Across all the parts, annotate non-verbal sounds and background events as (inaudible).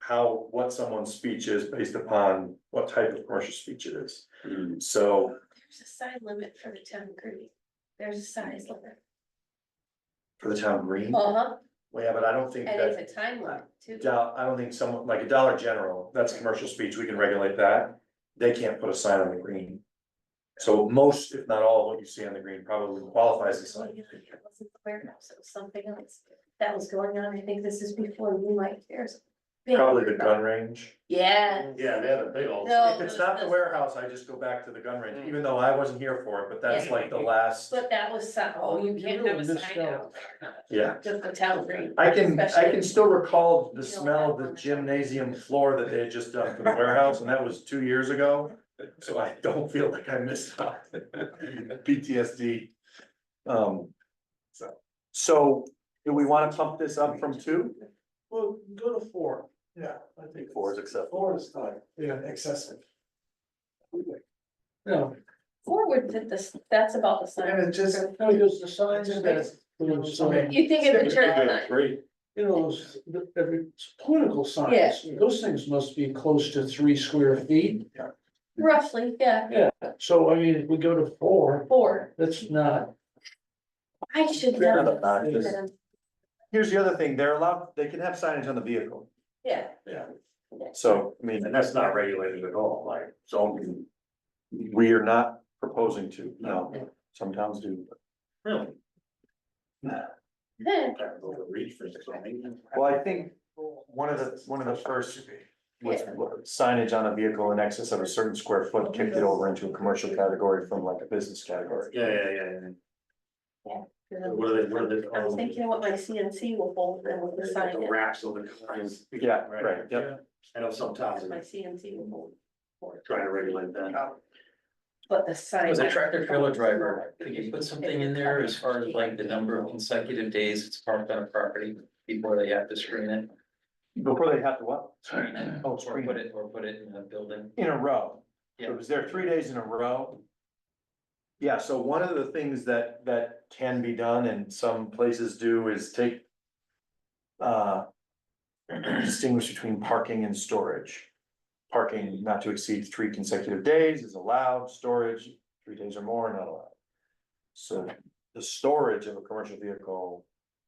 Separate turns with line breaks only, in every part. how, what someone's speech is based upon what type of commercial speech it is.
Hmm.
So
There's a size limit for the town green. There's a size limit.
for the town green,
Uh huh.
well, yeah, but I don't think
And it's
that,
a time limit too.
Do- I don't think someone, like a Dollar General, that's commercial speech, we can regulate that. They can't put a sign on the green. So most, if not all, what you see on the green probably qualifies as
So,
sign.
yeah, I wasn't aware of, so it was something else that was going on. I think this is before you might hear.
Probably the gun range.
Yeah.
Yeah, they had a big old.
No. Mm.
If it's not the warehouse, I just go back to the gun range, even though I wasn't here for it, but that's like the last,
But that was some, oh, you
You
can't
really
have a
missed
sign out.
yeah.
Just the town green.
I can, I
Especially-
can still recall the smell of the gymnasium floor that they had just done for the warehouse, and that was two years ago. So I don't feel like I missed (laughs) out. PTSD. Um, so, so do we wanna pump this up from two?
Well, go to four, yeah, I
think four is acceptable.
Four is fine, yeah, excessive. No,
Forward to this, that's about the sign.
and it just, no, because the signs
Just
that. those, uh,
You think of the church sign.
Great.
You know, those, the, every, political
Yeah.
signs, those things must be close to three square feet.
Roughly, yeah,
So I mean, if we go to four,
four.
that's not,
I should
Fair
know.
enough,
I just-
this.
Here's the other thing, they're allowed, they can have signage on the vehicle,
Yeah.
so, I mean. And that's not regulated at all, like, so. We are not proposing to, no, some towns do. Really?
Then,
Well, I think one of the, one of the first was signage on a vehicle in excess of a certain square foot kicked it over into a commercial category from like a business category.
Yeah, yeah, yeah, what are they, what are they?
I was thinking what my CNC will hold and what the sign
The
is.
wraps of the cars.
Yeah, right, yep.
I know sometimes
My
they're
CNC will hold. for it.
trying to regulate that.
But the sign.
As a tractor trailer driver, could you put something in there as far as like the number of consecutive days it's parked on a property before they have to screen it?
Before they have to what?
Screen it,
Oh,
Or
screen
put
it
it, or put it in a building.
in a row. So
Yeah.
It was there three days in a row. Yeah, so one of the things that, that can be done and some places do is take. Uh. Distinguish between parking and storage. Parking not to exceed three consecutive days is allowed, storage three days or more not allowed. So the storage of a commercial vehicle,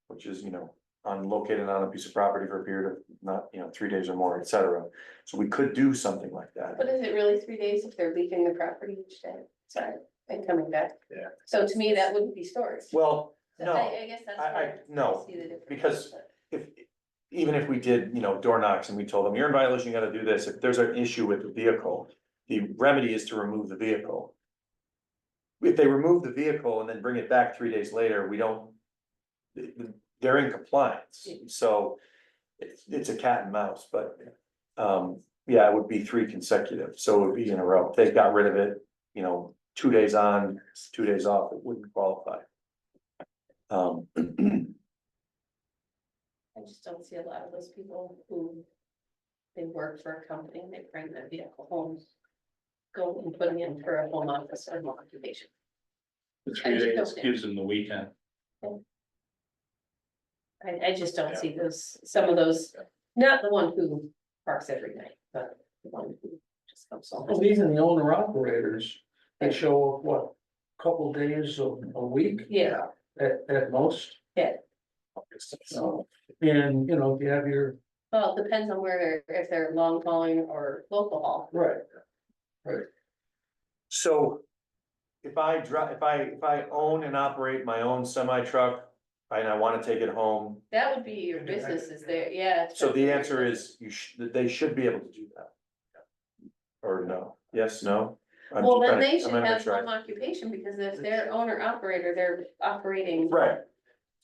which is, you know, on located on a piece of property for a period of not, you know, three days or more, et cetera. So we could do something like that.
But is it really three days if they're leaving the property each day? Sorry, and coming back.
Yeah.
So to me, that wouldn't be storage.
Well,
So
no,
I, I guess that's.
I- I-
where
no,
see the difference,
because-
but-
if, even if we did, you know, door knocks and we told them, you're in violation, you gotta do this, if there's an issue with the vehicle, the remedy is to remove the vehicle. If they remove the vehicle and then bring it back three days later, we don't, they're in compliance, so it's, it's a cat and mouse, but, um, yeah, it would be three consecutive, so it would be in a row. If they got rid of it, you know, two days on, two days off, it wouldn't qualify. Um, (clears throat)
I just don't see a lot of those people who. They work for a company and they bring their vehicle home. Go and put it in for a home office or home occupation. I just don't think-
them the weekend.
I, I just don't see those, some of those, not the one who parks every night, but the one who just comes
well,
home.
even the owner operators, they show up, what, couple days a, a week?
Yeah,
At, at most.
Yeah.
So, and, you know, if you have your,
well, it depends on where, they're if they're long hauling or local haul.
right,
So if I drive, if I, if I own and operate my own semi truck and I wanna take it home,
That would be your business is there, yeah.
so the answer is you should, they should be able to do that. Or no, yes, no? I'm
Well,
just
then
trying to-
they
I'm
should
gonna
have
try.
home occupation because if they're owner operator, they're operating.
Right,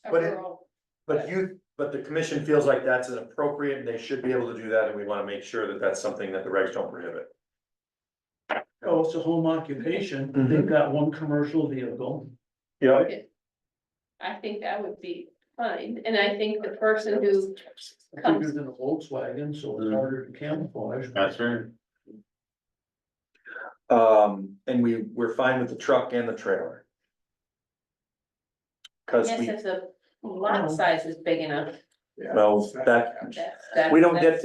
a
but it-
rural-
but you, but the commission feels like that's inappropriate and they should be able to do that and we wanna make sure that that's something that the regs don't prohibit.
oh, it's a home occupation, they've got one commercial vehicle.
Yeah.
I think that would be fine, and I think the person who
Bigger
comes,
than a Volkswagen, so it's harder to camouflage.
That's right.
Um, and we, we're fine with the truck and the trailer. Cause
yes,
we, Oh.
if the lot size is big enough,
well, that,
that's.
we don't
that's-
get